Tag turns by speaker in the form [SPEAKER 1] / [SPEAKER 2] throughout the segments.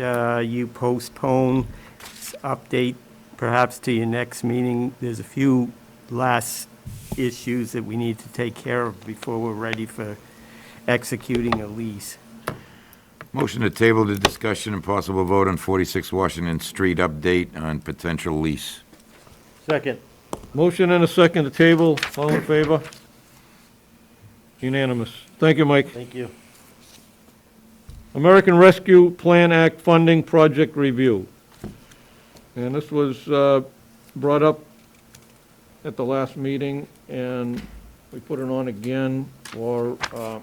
[SPEAKER 1] uh, you postpone this update perhaps to your next meeting. There's a few last issues that we need to take care of before we're ready for executing a lease.
[SPEAKER 2] Motion to table the discussion and possible vote on 46 Washington Street update on potential lease.
[SPEAKER 3] Second. Motion and a second to table. All in favor? Unanimous. Thank you, Mike.
[SPEAKER 1] Thank you.
[SPEAKER 3] American Rescue Plan Act Funding Project Review. And this was uh, brought up at the last meeting, and we put it on again for uh,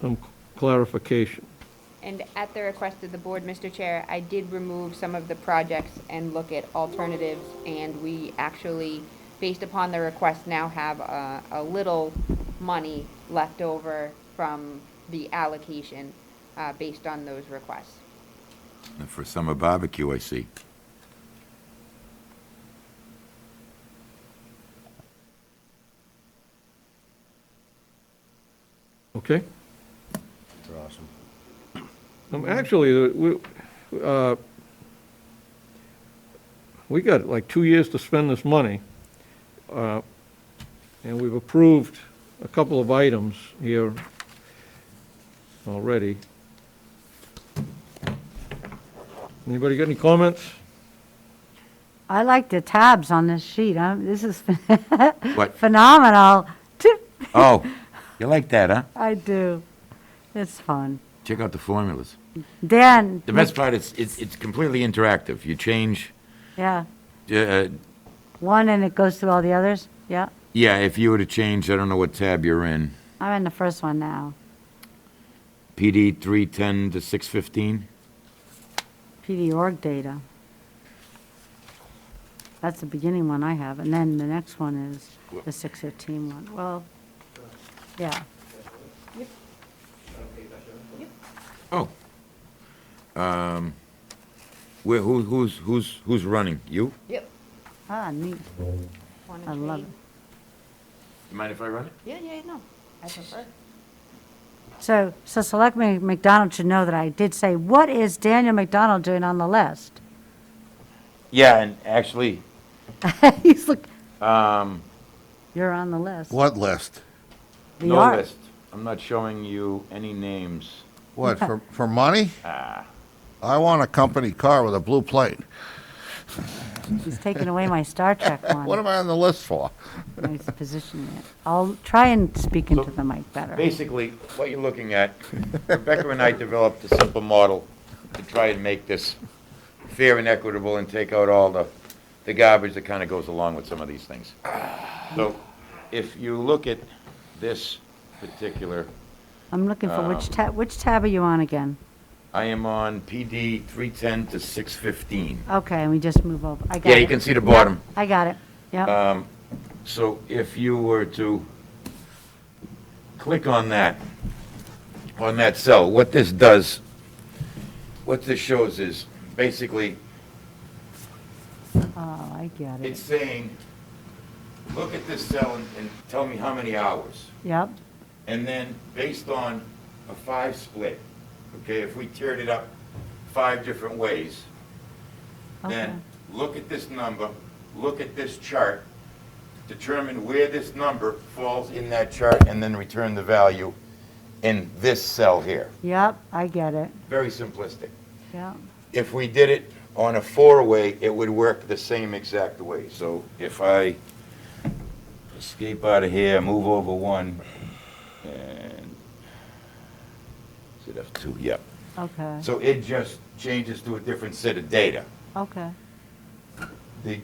[SPEAKER 3] some clarification.
[SPEAKER 4] And at the request of the board, Mr. Chair, I did remove some of the projects and look at alternatives, and we actually, based upon the request, now have a, a little money left over from the allocation, uh, based on those requests.
[SPEAKER 2] And For summer barbecue, I see.
[SPEAKER 3] Okay?
[SPEAKER 5] They're awesome.
[SPEAKER 3] Um, Actually, we, uh, we got like two years to spend this money, uh, and we've approved a couple of items here already. Anybody got any comments?
[SPEAKER 6] I like the tabs on this sheet. i this is
[SPEAKER 2] What?
[SPEAKER 6] phenomenal.
[SPEAKER 2] Oh, you like that, huh?
[SPEAKER 6] I do. It's fun.
[SPEAKER 2] Check out the formulas.
[SPEAKER 6] Dan.
[SPEAKER 2] The best part is, it's it's completely interactive. You change,
[SPEAKER 6] Yeah.
[SPEAKER 2] uh,
[SPEAKER 6] One and it goes through all the others. Yeah.
[SPEAKER 2] yeah, if you were to change, I don't know what tab you're in,
[SPEAKER 6] I'm in the first one now.
[SPEAKER 2] PD 310 to 615?
[SPEAKER 6] PD org data. That's the beginning one I have. And then the next one is the 615 one. Well, yeah.
[SPEAKER 2] Oh. Um, Where, who- who's, who's, who's running? You?
[SPEAKER 4] Yep.
[SPEAKER 6] Ah, neat.
[SPEAKER 4] One
[SPEAKER 6] I
[SPEAKER 4] and
[SPEAKER 6] love
[SPEAKER 4] three.
[SPEAKER 6] it.
[SPEAKER 2] You mind if I run it?
[SPEAKER 4] Yeah, yeah, no, I prefer.
[SPEAKER 6] So, so Selectman McDonald should know that I did say, what is Daniel McDonald doing on the list?
[SPEAKER 2] Yeah, and actually,
[SPEAKER 6] He's like,
[SPEAKER 2] um,
[SPEAKER 6] you're on the list.
[SPEAKER 5] What list?
[SPEAKER 6] The
[SPEAKER 2] No
[SPEAKER 6] art.
[SPEAKER 2] list. I'm not showing you any names.
[SPEAKER 5] What, for, for money? I want a company car with a blue plate.
[SPEAKER 6] He's taking away my Star Trek one.
[SPEAKER 5] What am I on the list for?
[SPEAKER 6] He's positioning it. I'll try and speak into the mic better.
[SPEAKER 2] Basically, what you're looking at, Rebecca and I developed a simple model to try and make this fair and equitable and take out all the, the garbage that kind of goes along with some of these things. So if you look at this particular,
[SPEAKER 6] I'm looking for which
[SPEAKER 2] uh,
[SPEAKER 6] tab, which tab are you on again?
[SPEAKER 2] I am on PD 310 to 615.
[SPEAKER 6] Okay, and we just move over. I got it.
[SPEAKER 2] Yeah, you can Uh, see the bottom.
[SPEAKER 6] I got it. Yep,
[SPEAKER 2] So if you were to click on that, on that cell, what this does, what this shows is, basically,
[SPEAKER 6] oh, I get
[SPEAKER 2] it's
[SPEAKER 6] it.
[SPEAKER 2] saying, look at this cell and, and tell me how many hours.
[SPEAKER 6] Yep,
[SPEAKER 2] And then, based on a five split, okay, if we tiered it up five different ways,
[SPEAKER 6] Okay.
[SPEAKER 2] then look at this number, look at this chart, determine where this number falls in that chart, and then return the value in this cell here.
[SPEAKER 6] yep, I get it.
[SPEAKER 2] Very simplistic.
[SPEAKER 6] Yep,
[SPEAKER 2] If we did it on a four-way, it would work the same exact way. So if I escape out of here, move over one, and, is it F2? Yep.
[SPEAKER 6] okay,
[SPEAKER 2] So it just changes to a different set of data.
[SPEAKER 6] okay.
[SPEAKER 2] The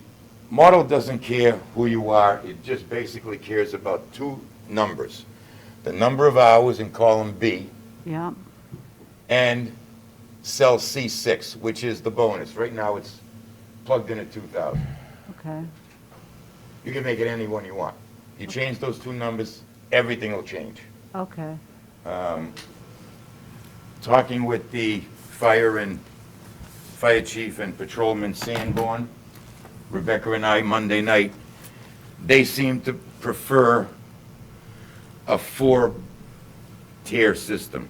[SPEAKER 2] model doesn't care who you are, it just basically cares about two numbers. The number of hours in column B
[SPEAKER 6] Yep,
[SPEAKER 2] and cell C6, which is the bonus. Right now, it's plugged in at 2,000.
[SPEAKER 6] okay,
[SPEAKER 2] You can make it any one you want. You change those two numbers, everything will change.
[SPEAKER 6] okay.
[SPEAKER 2] Talking with the fire and, fire chief and patrolman Sanborn, Rebecca and I Monday night, they seem to prefer a four-tier system.